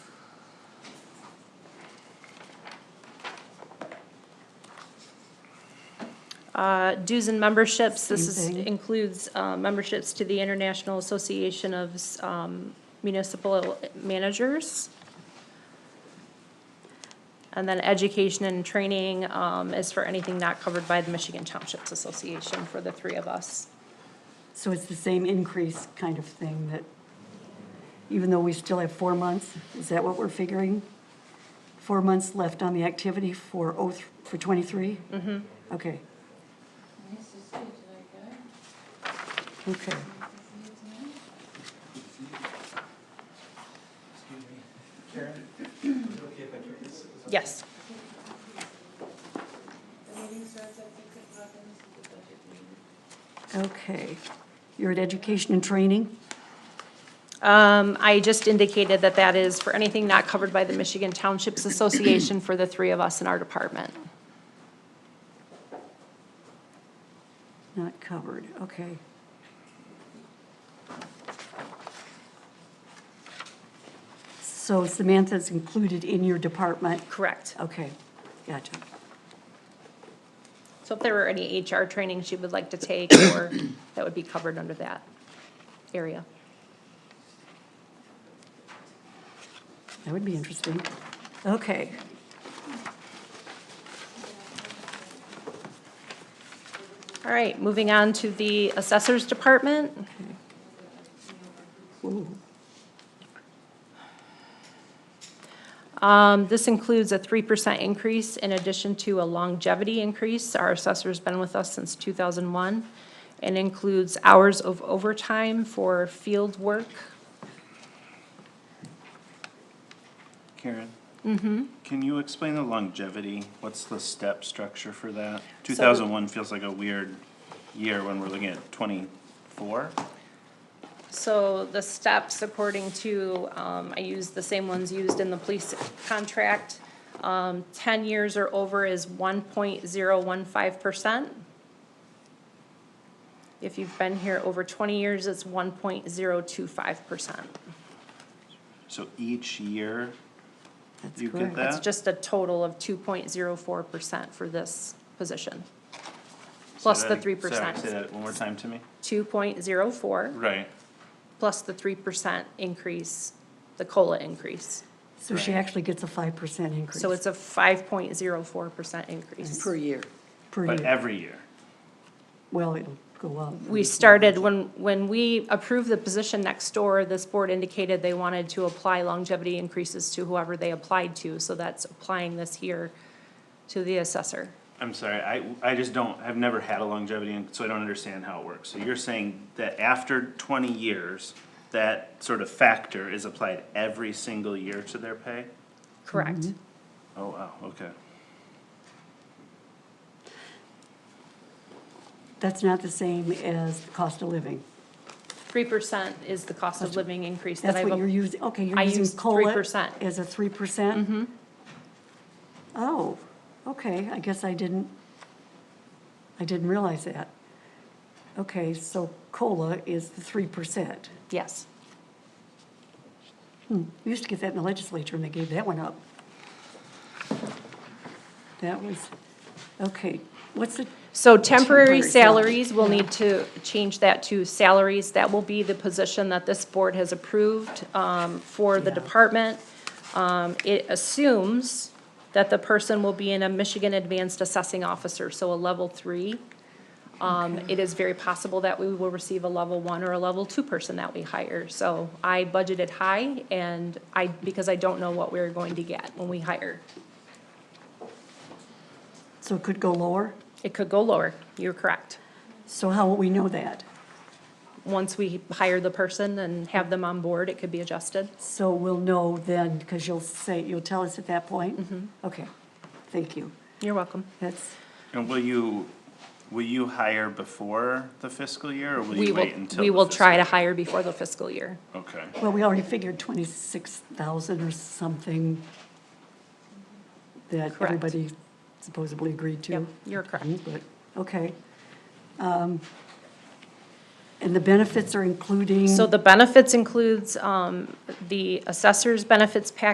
Uh, Dues and memberships, this is, Same thing. includes uh, memberships to the International Association of um, Municipal Managers. And then education and training um, is for anything not covered by the Michigan Townships Association for the three of us. So it's the same increase kind of thing that, even though we still have four months, is that what we're figuring? Four months left on the activity for oh, th- for 23? Mm-hmm. Okay, okay. Excuse me. Karen, is it okay if I took this? Yes. Okay. You're at education and training? Um, I just indicated that that is for anything not covered by the Michigan Townships Association for the three of us in our department. Not covered, okay. So Samantha's included in your department? Correct. Okay, gotcha. So if there were any HR training she would like to take, or that would be covered under that area. That would be interesting. Okay. All right, moving on to the assessors department. Ooh, Um, this includes a three percent increase in addition to a longevity increase. Our assessor's been with us since two thousand one. And includes hours of overtime for field work. Karen? Mm-hmm. Can you explain the longevity? What's the step structure for that? the- Two thousand one feels like a weird year when we're looking at twenty-four? So the steps according to, um, I used the same ones used in the police contract. Um, ten years or over is one point zero one five percent. If you've been here over twenty years, it's one point zero two five percent. So each year, that's You get correct. that? It's just a total of two point zero four percent for this position. Plus say the that- three sorry, Say percent, that one more time to me. two point zero four, Right. plus the three percent increase, the COLA increase. So she Right. actually gets a 5% increase. So it's a five point zero four percent increase. Per year. Per But year. every year. Well, it'll go up. We started, when, when we approved the position next door, this board indicated they wanted to apply longevity increases to whoever they applied to, so that's applying this year to the assessor. I'm sorry, I, I just don't, I've never had a longevity, and so I don't understand how it works. So you're saying that after twenty years, that sort of factor is applied every single year to their pay? Correct. Mm-hmm. Oh, wow, okay. That's not the same as the cost of living. Three percent is the cost of living increase that That's I've. what you're using, okay, you're I using used COLA 3%. as a 3%? Mm-hmm. Oh, okay, I guess I didn't, I didn't realize that. Okay, so COLA is the 3%. Yes. We used to get that in the legislature, and they gave that one up. That was, okay, what's the, So temporary Temporary salary. salaries, we'll need to change that to salaries. That will be the position that this board has approved um, for the Yeah. department. Um, It assumes that the person will be in a Michigan Advanced Assessing Officer, so a level three. Um, It is very possible that we will receive a level one or a level two person that we hire. So I budgeted high and I, because I don't know what we're going to get when we hire. so it could go lower? It could go lower, you're correct. So how will we know that? once we hire the person and have them on board, it could be adjusted. So we'll know then, because you'll say, you'll tell us at that point? Mm-hmm. Okay, thank you. You're welcome. That's, And will you, will you hire before the fiscal year, or will We you will, wait until? we the will fiscal- try to hire before the fiscal year. Okay, well, we already figured 26,000 or something that Correct. everybody supposedly agreed to. Yep, you're correct. But, okay. Um, And the benefits are including? So the benefits includes, um, the assessor's benefits package